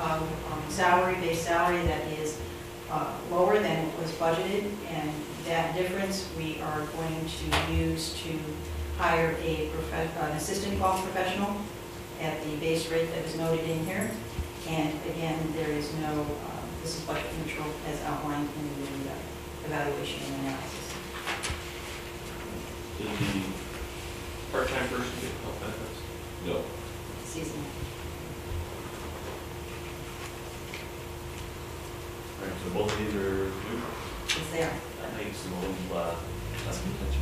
um, salary, base salary that is uh, lower than what was budgeted, and that difference we are going to use to hire a profe- an assistant golf professional at the base rate that is noted in here. And again, there is no, uh, this is budget neutral as outlined in the uh, evaluation and analysis. Did the part-time person get health benefits? No. Seasonal. All right, so both of these are neutral. It's there. That makes a little, uh, less contentious.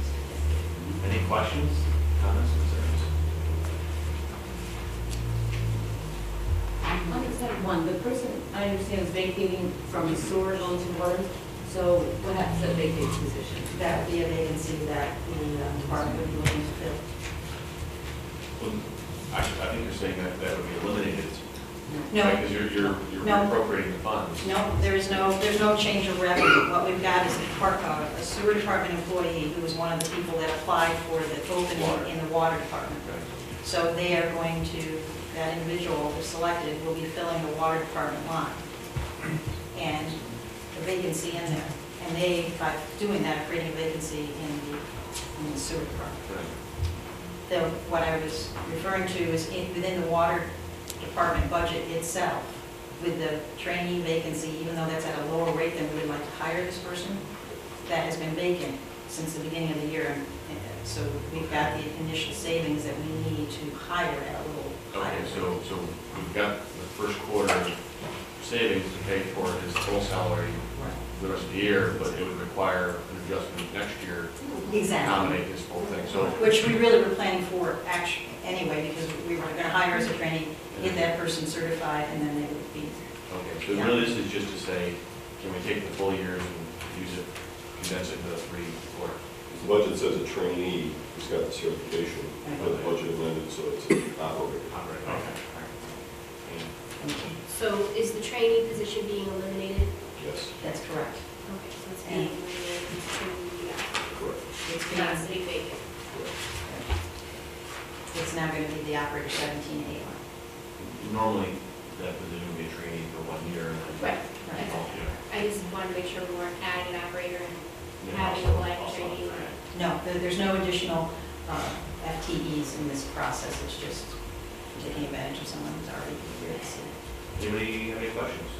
Any questions, comments, concerns? On the second one, the person, I understand, is vacating from sewer going to water, so what happens at vacate position? That would be a vacancy that the uh, department would be looking to fill. Well, I, I think you're saying that that would be eliminated. No. Because you're, you're, you're No. appropriating the funds. No, there is no, there's no change of revenue. What we've got is a part- uh, a sewer department employee who was one of the people that applied for the Water. opening in the water department. Okay. So they are going to, that individual who's selected will be filling the water department line and the vacancy in there. And they, by doing that, are creating a vacancy in the in the sewer department. Right. The, what I was referring to is in, within the water department budget itself, with the trainee vacancy, even though that's at a lower rate than we would like to hire this person, that has been vacant since the beginning of the year. and- and So we've got the initial savings that we need to hire at a little higher. Okay, so, so we've got the first quarter savings to pay for his full salary Right. the rest of the year, but it would require an adjustment next year to Exactly. accommodate his full thing, so. Which we really were planning for actually, anyway, because we were gonna hire as a trainee, get that person certified, and then they would be Okay, so really this is just to say, can we take the full year and use it, condense it to three quarter? The budget says a trainee who's got the certification, but the budget amended, so it's an operator. Operating, okay, all right. So is the trainee position being eliminated? Yes, That's correct. Okay, so it's Yeah. being eliminated from correct, It's the gonna- capacity vacant. correct. It's now going to be the operator seventeen eight one. And Normally, that position would be a trainee for one year and then. Right. Right. Well, yeah. I just wanted to make sure we weren't adding an operator and Yeah, having a also- live also, trainee. right. No, there- there's no additional uh, FTEs in this process, it's just taking advantage of someone who's already here. So- Anybody have any questions?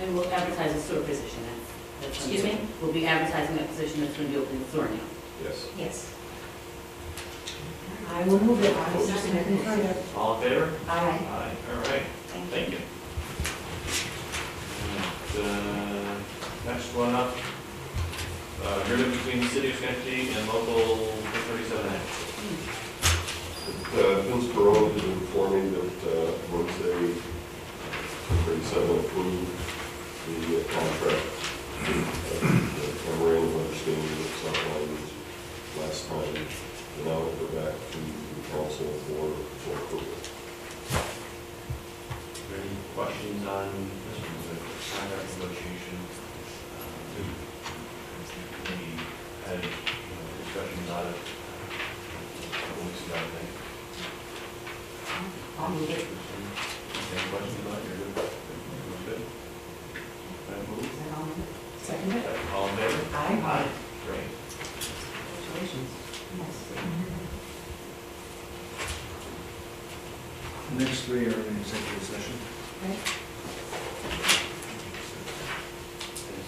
And we'll advertise a sewer position, that's. that's- Excuse me? We'll be advertising a position that's going to be open in sewer now. Yes. Yes. I will move it, I was just gonna confirm that. All in favor? Aye. Aye. All right, Thank thank you. you. The uh, next one up, uh, agreement between the city of Schenectady and local 137A. Uh, Vince Perone did inform me that uh, Wednesday, thirty-seven approved the uh, contract. uh, Memorandum of understanding that's outlined last time, and now we'll go back to the council for for approval. Are there Any questions on this one, the contract negotiation? Um, We had you know, discussions on it uh, a couple weeks ago, I think. I'll move it. Any questions about it? You're good? Everyone's good? Can I move? Is that all? Second it. All in favor? Aye. Great. Congratulations. Next three are in executive session. And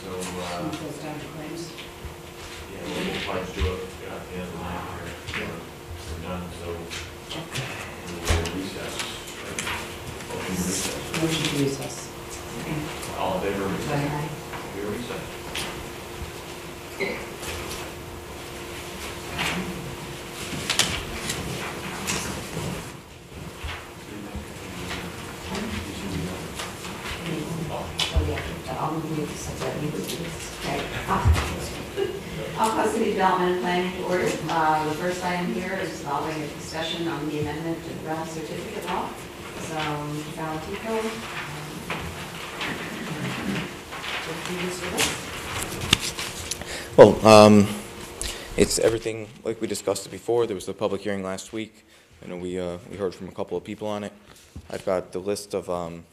so, uh, Some closed down claims. yeah, we'll try to do it uh, at the end of the night here. We're- We're done, so we'll recess. Motion to recess. Motion to recess. All in favor? of recess? Aye. We are recessed. Oh, yeah, I'll move it, so that you would do this. Okay. I'll call city development and planning to order. Uh, The first item here is following a discussion on the amendment to the rental certificate law. So, Mr. Valentico. um, Will you serve us? Well, um, it's everything like we discussed it before. There was the public hearing last week. I know we, uh, we heard from a couple of people on it. I've got the list of, um,